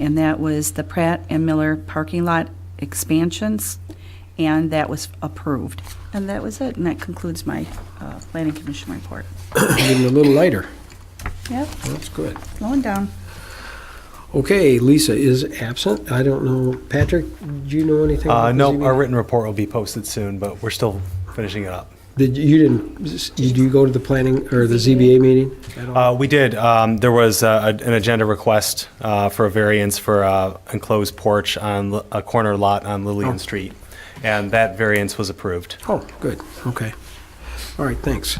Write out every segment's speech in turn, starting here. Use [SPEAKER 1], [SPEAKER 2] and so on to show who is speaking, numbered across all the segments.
[SPEAKER 1] and that was the Pratt and Miller parking lot expansions, and that was approved. And that was it, and that concludes my uh, Planning Commission report.
[SPEAKER 2] Even a little lighter.
[SPEAKER 1] Yep,
[SPEAKER 2] That's good.
[SPEAKER 1] slowing down.
[SPEAKER 2] Okay, Lisa is absent. I don't know. Patrick, do you know anything?
[SPEAKER 3] Uh,
[SPEAKER 2] about the
[SPEAKER 3] no,
[SPEAKER 2] ZBA?
[SPEAKER 3] our written report will be posted soon, but we're still finishing it up.
[SPEAKER 2] Did, you didn't, did you go to the planning or the ZBA meeting? at all?
[SPEAKER 3] Uh, we did. Um, there was uh, a- an agenda request uh, for a variance for uh, enclosed porch on Li- a corner lot on
[SPEAKER 4] Oh.
[SPEAKER 3] Lillian Street, and that variance was approved.
[SPEAKER 2] Oh, good, okay. All right, thanks.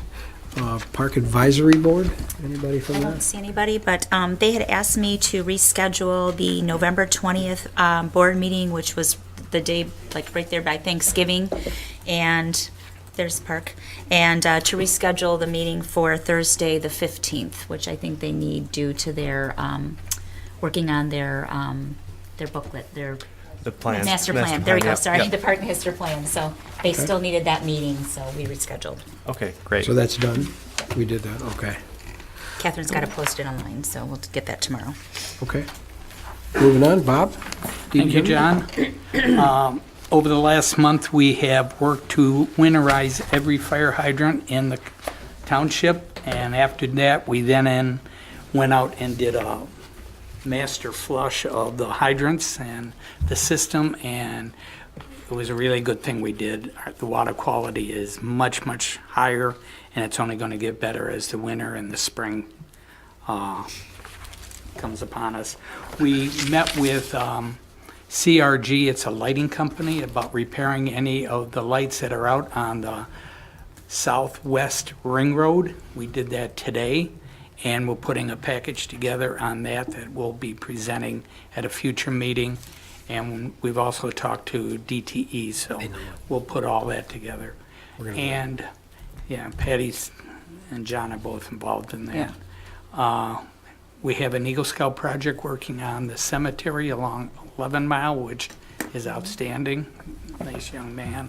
[SPEAKER 2] Uh, Park Advisory Board, anybody from
[SPEAKER 4] I
[SPEAKER 2] that?
[SPEAKER 4] don't see anybody, but um, they had asked me to reschedule the November 20th um, board meeting, which was the day, like, right there by Thanksgiving, and, there's Park, and uh, to reschedule the meeting for Thursday, the 15th, which I think they need due to their, um, working on their, um, their booklet, their
[SPEAKER 3] The plan.
[SPEAKER 4] master plan. There we go,
[SPEAKER 3] yep,
[SPEAKER 4] sorry,
[SPEAKER 3] yep.
[SPEAKER 4] the Park Master Plan, so they still needed that meeting, so we rescheduled.
[SPEAKER 3] Okay, great.
[SPEAKER 2] So that's done? We did that, okay,
[SPEAKER 4] Catherine's got it posted online, so we'll get that tomorrow.
[SPEAKER 2] okay. Moving on, Bob?
[SPEAKER 5] Thank you, John. Um, Over the last month, we have worked to winterize every fire hydrant in the township, and after that, we then in- went out and did a master flush of the hydrants and the system, and it was a really good thing we did. Our- The water quality is much, much higher, and it's only going to get better as the winter and the spring uh, comes upon us. We met with um, CRG, it's a lighting company, about repairing any of the lights that are out on the southwest ring road. We did that today, and we're putting a package together on that that we'll be presenting at a future meeting. And we've also talked to DTE, so we'll put all that together. And, yeah, Patty's and John are both involved in
[SPEAKER 1] Yeah.
[SPEAKER 5] that. Uh, we have an Eagle Scout project working on the cemetery along 11 Mile, which is outstanding. Nice young man.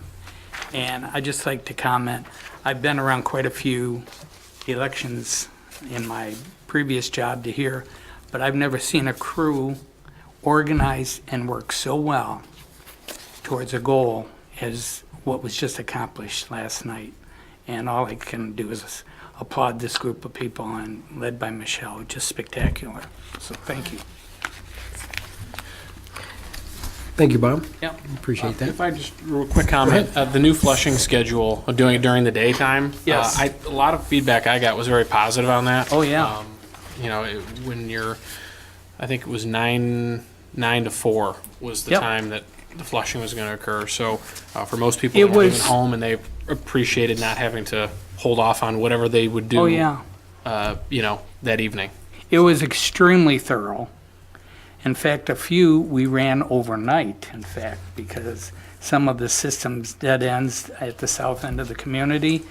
[SPEAKER 5] And i just like to comment, I've been around quite a few elections in my previous job to here, but I've never seen a crew organize and work so well towards a goal as what was just accomplished last night. And all I can do is applaud this group of people and led by Michelle, just spectacular. So thank you.
[SPEAKER 2] Thank you, Bob,
[SPEAKER 6] Yeah.
[SPEAKER 2] appreciate that.
[SPEAKER 6] Uh, If I just, real quick comment, uh, the new flushing schedule, of doing it during the daytime.
[SPEAKER 5] Yes.
[SPEAKER 6] uh, I, a lot of feedback I got was very positive on that.
[SPEAKER 5] Oh, yeah.
[SPEAKER 6] Um, You know, it- when you're, I think it was nine, nine to four was the
[SPEAKER 5] Yep.
[SPEAKER 6] time that the flushing was gonna occur. So, uh, for most people
[SPEAKER 5] It
[SPEAKER 6] that were leaving
[SPEAKER 5] was-
[SPEAKER 6] home and they appreciated not having to hold off on whatever they would do.
[SPEAKER 5] Oh, yeah.
[SPEAKER 6] Uh, you know, that evening.
[SPEAKER 5] It was extremely thorough. In fact, a few we ran overnight, in fact, because some of the system's dead ends at the south end of the community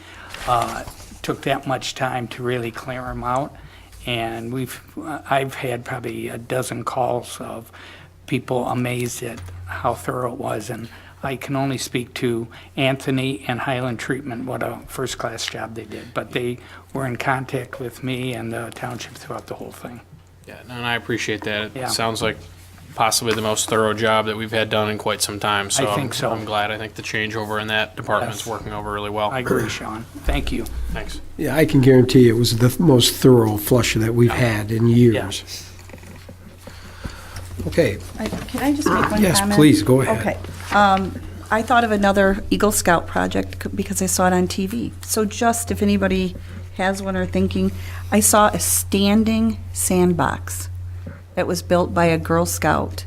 [SPEAKER 5] uh, took that much time to really clear them out. And we've, I've had probably a dozen calls of people amazed at how thorough it was. And I can only speak to Anthony and Highland Treatment, what a first-class job they did. But they were in contact with me and the township throughout the whole thing.
[SPEAKER 6] Yeah, no, and I appreciate that.
[SPEAKER 5] Yeah.
[SPEAKER 6] It sounds like possibly the most thorough job that we've had done in quite some time, so.
[SPEAKER 5] I think
[SPEAKER 6] I'm-
[SPEAKER 5] so.
[SPEAKER 6] I'm glad. I think the changeover in that department's
[SPEAKER 5] Yes.
[SPEAKER 6] working over really well.
[SPEAKER 5] I agree, Sean. Thank you.
[SPEAKER 6] Thanks.
[SPEAKER 2] Yeah, I can guarantee it was the most thorough flush that we've had in years. Okay,
[SPEAKER 1] I- Can I just make one comment?
[SPEAKER 2] Yes, please, go ahead.
[SPEAKER 1] Okay. Um, I thought of another Eagle Scout project c- because I saw it on TV. So just if anybody has one or thinking, I saw a standing sandbox that was built by a Girl Scout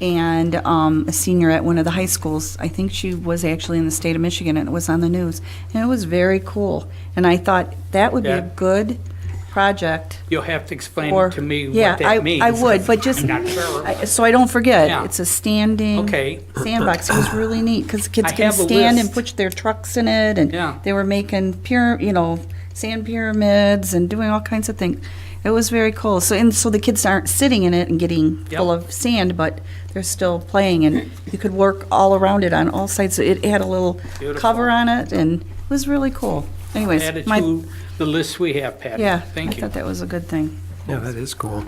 [SPEAKER 1] and um, a senior at one of the high schools. I think she was actually in the state of Michigan, and it was on the news. And it was very cool. And I thought that would be a
[SPEAKER 5] Yeah.
[SPEAKER 1] good project
[SPEAKER 5] You'll have to explain
[SPEAKER 1] or.
[SPEAKER 5] to me
[SPEAKER 1] yeah,
[SPEAKER 5] what
[SPEAKER 1] I-
[SPEAKER 5] that means.
[SPEAKER 1] I would, but just,
[SPEAKER 5] I'm not sure.
[SPEAKER 1] I- so I don't
[SPEAKER 5] Yeah.
[SPEAKER 1] forget, it's a standing.
[SPEAKER 5] Okay.
[SPEAKER 1] Sandbox, it was really neat, because kids
[SPEAKER 5] I
[SPEAKER 1] can
[SPEAKER 5] have a
[SPEAKER 1] stand and
[SPEAKER 5] list.
[SPEAKER 1] put their trucks in it, and
[SPEAKER 5] Yeah.
[SPEAKER 1] they were making pyra, you know, sand pyramids and doing all kinds of things. It was very cool, so, and so the kids aren't sitting in it and getting full
[SPEAKER 5] Yep.
[SPEAKER 1] of sand, but they're still playing, and you could work all around it on all sides, So it had a little cover
[SPEAKER 5] Beautiful.
[SPEAKER 1] on it, and it was really cool. Anyways,
[SPEAKER 5] Added
[SPEAKER 1] my,
[SPEAKER 5] to the list we have, Patty.
[SPEAKER 1] yeah, I
[SPEAKER 5] Thank you.
[SPEAKER 1] thought that was a good thing.
[SPEAKER 2] yeah, that is cool.